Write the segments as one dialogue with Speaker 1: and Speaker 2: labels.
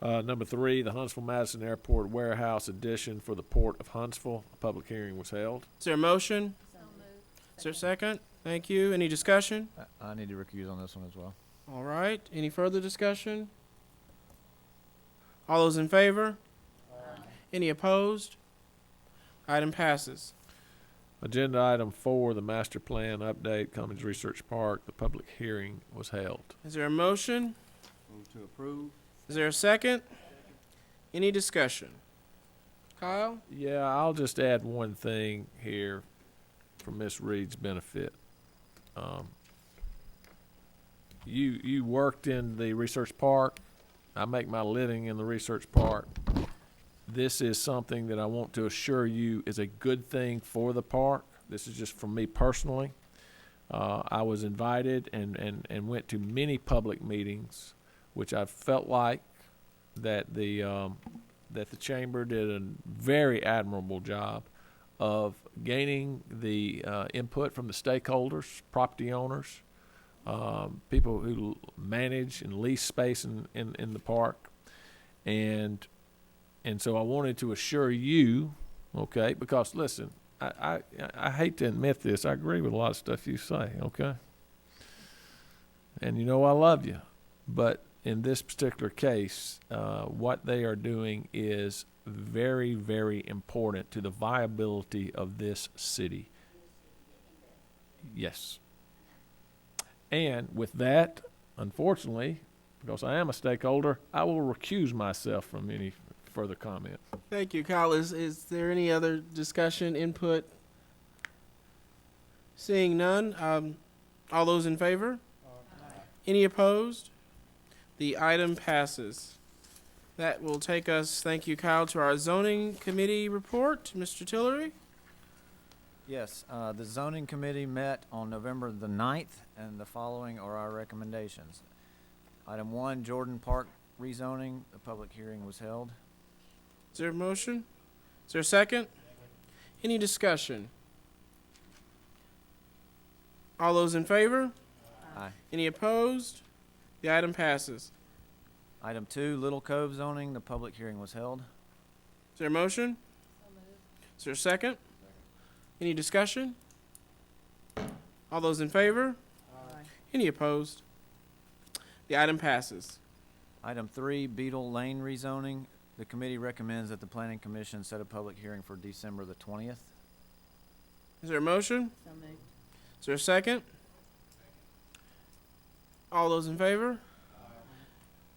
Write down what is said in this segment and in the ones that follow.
Speaker 1: Uh, number three, the Huntsville Madison Airport Warehouse Addition for the Port of Huntsville. A public hearing was held.
Speaker 2: Is there a motion? Is there a second? Thank you. Any discussion?
Speaker 3: I- I need to recuse on this one as well.
Speaker 2: All right. Any further discussion? All those in favor? Any opposed? Item passes.
Speaker 1: Agenda item four, the master plan update, Cummings Research Park. The public hearing was held.
Speaker 2: Is there a motion?
Speaker 4: Move to approve.
Speaker 2: Is there a second? Any discussion? Kyle?
Speaker 1: Yeah, I'll just add one thing here for Miss Reed's benefit. Um, you you worked in the research park. I make my living in the research park. This is something that I want to assure you is a good thing for the park. This is just from me personally. Uh, I was invited and, and, and went to many public meetings, which I felt like that the um, that the chamber did a very admirable job of gaining the uh, input from the stakeholders, property owners, um, people who l- manage and lease space in, in, in the park. And and so I wanted to assure you, okay, because listen, I, I, I hate to admit this, I agree with a lot of stuff you say, okay? And you know I love you. But in this particular case, uh, what they are doing is very, very important to the viability of this city. Yes. And with that, unfortunately, because I am a stakeholder, I will recuse myself from any further comment.
Speaker 2: Thank you, Kyle. Is, is there any other discussion, input? Seeing none, um, all those in favor? Any opposed? The item passes. That will take us, thank you, Kyle, to our zoning committee report. Mr. Tillery?
Speaker 3: Yes, uh, the zoning committee met on November the ninth, and the following are our recommendations. Item one, Jordan Park rezoning, the public hearing was held.
Speaker 2: Is there a motion? Is there a second? Any discussion? All those in favor?
Speaker 3: Aye.
Speaker 2: Any opposed? The item passes.
Speaker 3: Item two, Little Cove zoning, the public hearing was held.
Speaker 2: Is there a motion? Is there a second? Any discussion? All those in favor? Any opposed? The item passes.
Speaker 3: Item three, Beetle Lane rezoning, the committee recommends that the planning commission set a public hearing for December the twentieth.
Speaker 2: Is there a motion? Is there a second? All those in favor?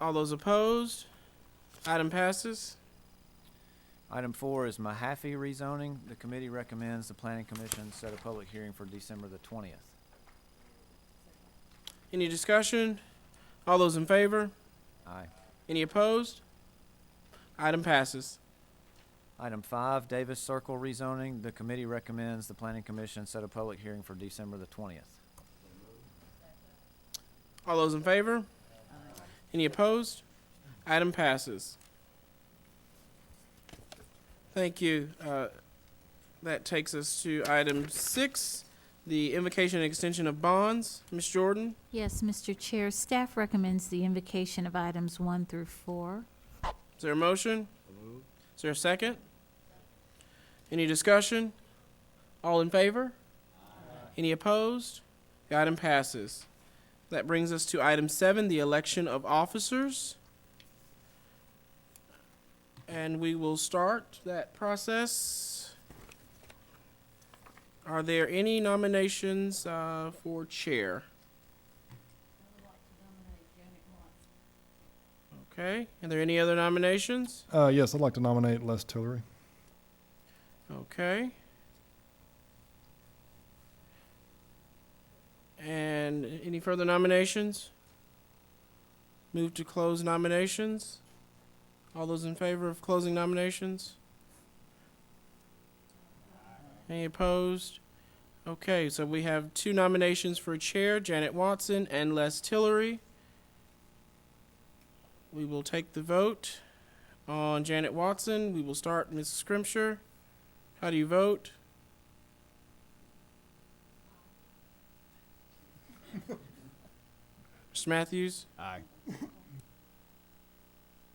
Speaker 2: All those opposed? Item passes.
Speaker 3: Item four is Mahaffey rezoning, the committee recommends the planning commission set a public hearing for December the twentieth.
Speaker 2: Any discussion? All those in favor?
Speaker 3: Aye.
Speaker 2: Any opposed? Item passes.
Speaker 3: Item five, Davis Circle rezoning. The committee recommends the planning commission set a public hearing for December the twentieth.
Speaker 2: All those in favor? Any opposed? Item passes. Thank you. Uh, That takes us to item six, the invocation and extension of bonds. Ms. Jordan,
Speaker 5: Yes, Mr. Chair, staff recommends the invocation of items one through four.
Speaker 2: is there a motion? Is there a second? Any discussion? All in favor? Any opposed? The item passes. That brings us to item seven, the election of officers. And we will start that process. Are there any nominations uh, for chair? Okay, are there any other nominations?
Speaker 6: Uh, yes, I'd like to nominate Les Tillery.
Speaker 2: Okay. And any further nominations? Move to close nominations. All those in favor of closing nominations? Any opposed? Okay, so we have two nominations for chair, Janet Watson and Les Tillery. We will take the vote on Janet Watson. We will start Ms. Scrimshire. How do you vote? Mr. Matthews?
Speaker 4: Aye.